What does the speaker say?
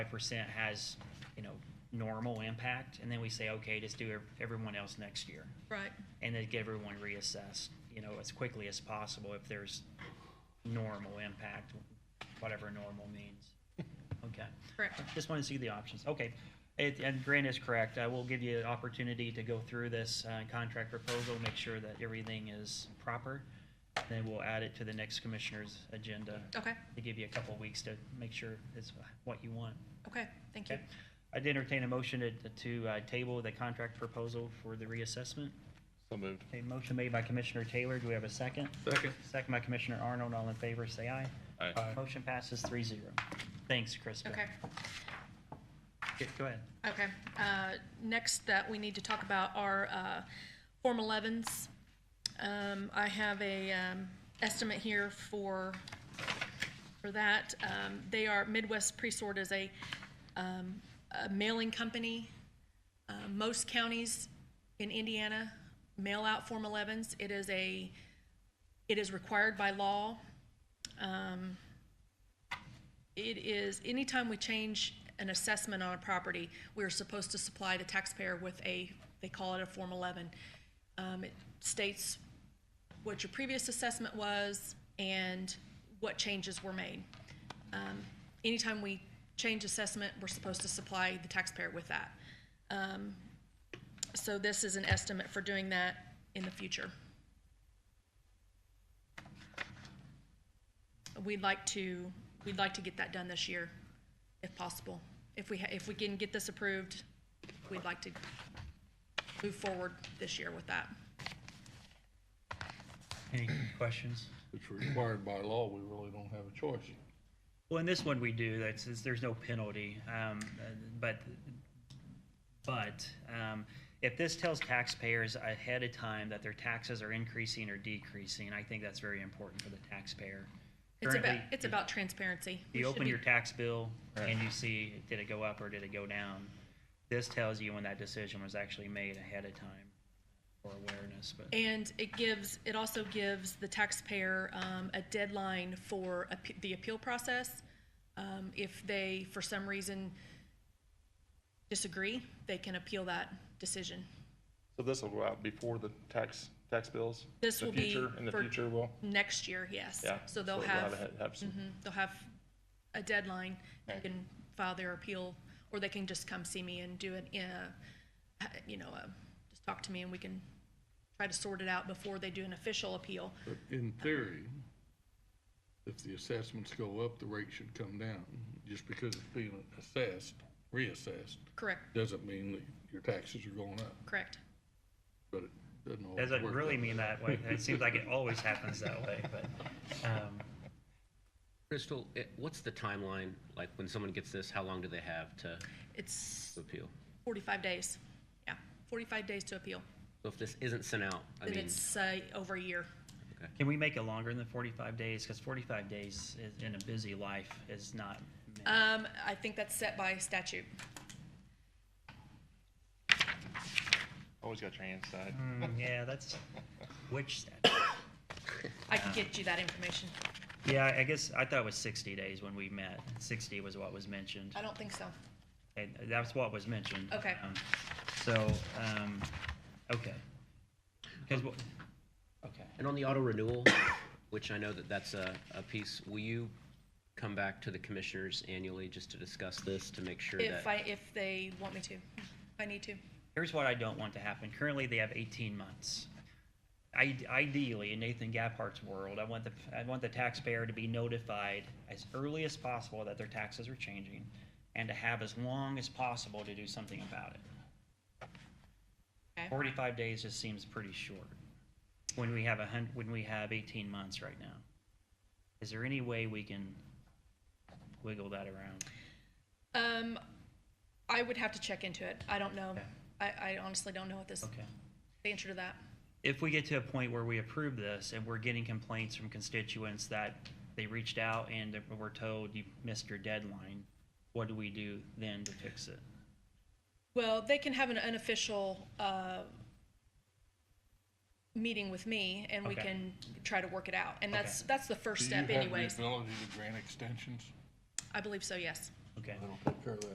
percent has, you know, normal impact, and then we say, okay, just do ev- everyone else next year. Right, And then get everyone reassessed, you know, as quickly as possible if there's normal impact, whatever normal means. Okay. correct. Just want to see the options. Okay. It, and Grant is correct. I will give you an opportunity to go through this, uh, contract proposal, make sure that everything is proper. Then we'll add it to the next commissioner's agenda Okay, to give you a couple weeks to make sure it's what you want. okay, thank you. Okay. I'd entertain a motion to- to uh, table the contract proposal for the reassessment. So moved. A motion made by Commissioner Taylor. Do we have a second? Second. Second by Commissioner Arnold. All in favor, say aye. Uh, Aye. Motion passes three zero. Thanks, Krista. Okay, Yeah, Go ahead. okay. Uh, Next that we need to talk about are uh, Form 11s. Um, I have a um, estimate here for, for that. Um, They are, Midwest Presort is a um, a mailing company. Uh, Most counties in Indiana mail out Form 11s. It is a, it is required by law. Um, it is, anytime we change an assessment on a property, we're supposed to supply the taxpayer with a, they call it a Form 11. Um, It states what your previous assessment was and what changes were made. Um, Anytime we change assessment, we're supposed to supply the taxpayer with that. Um, So this is an estimate for doing that in the future. we'd like to, we'd like to get that done this year, if possible. If we, ha- if we can get this approved, we'd like to move forward this year with that. Any questions? It's required by law, we really don't have a choice. Well, in this one we do, that's, is- there's no penalty, um, uh, but, but, um, if this tells taxpayers ahead of time that their taxes are increasing or decreasing, I think that's very important for the taxpayer. It's about, Currently, it's about transparency. We You should open be- your tax bill and you see, did it go up or did it go down? This tells you when that decision was actually made ahead of time for awareness, but, And it gives, it also gives the taxpayer um, a deadline for appe- the appeal process. Um, If they, for some reason, disagree, they can appeal that decision. So this will go out before the tax, tax bills? This The will be future- In the for- future, will? Next year, yes. Yeah. So they'll we'll have. a- Have some, Mhm, They'll have a deadline, they Right. can file their appeal, or they can just come see me and do it in a, you know, uh, just talk to me and we can try to sort it out before they do an official appeal. But in theory, if the assessments go up, the rate should come down. Just because it's being assessed, reassessed, Correct, doesn't mean that your taxes are going up, correct. but it doesn't always work. doesn't really that way. mean that way. It seems like it always happens that way, but, um, Crystal, eh, what's the timeline? Like, when someone gets this, how long do they have to It's appeal? forty-five days, yeah, forty-five days to appeal, So if this isn't sent out, I then mean, it's, uh, over a year. Can we make it longer than forty-five days? Because forty-five days is, in a busy life is not. meant- Um, I think that's set by statute. always got your hands tied. Hmm, yeah, that's which statute? I Uh-huh. can get you that information, Yeah, I guess I thought it was sixty days when we met. Sixty was what was mentioned, I don't think so, and that's what was mentioned. Okay. Um, So, um, okay. Because what? Okay. and on the auto renewal, which I know that that's a, a piece, will you come back to the commissioners annually just to discuss this, to make sure if I, that? if they want me to, if I need to. Here's what I don't want to happen. Currently, they have 18 months. I, ideally, in Nathan Gaphart's world, I want the I want the taxpayer to be notified as early as possible that their taxes are changing, and to have as long as possible to do something about it. Okay. 45 days just seems pretty short when we have a hun- when we have 18 months right now. Is there any way we can wiggle that around? Um, I would have to check into it. I don't know. Okay. I, I honestly don't know what this, Okay. the answer to that. if we get to a point where we approve this and we're getting complaints from constituents that they reached out and that we're told you missed your deadline, what do we do then to fix it? Well, they can have an unofficial, uh, meeting with me and we Okay. can try to work it out. And that's, that's the first Do you step have the anyways. ability to grant extensions? I believe so, yes. Okay. That'll take care of that.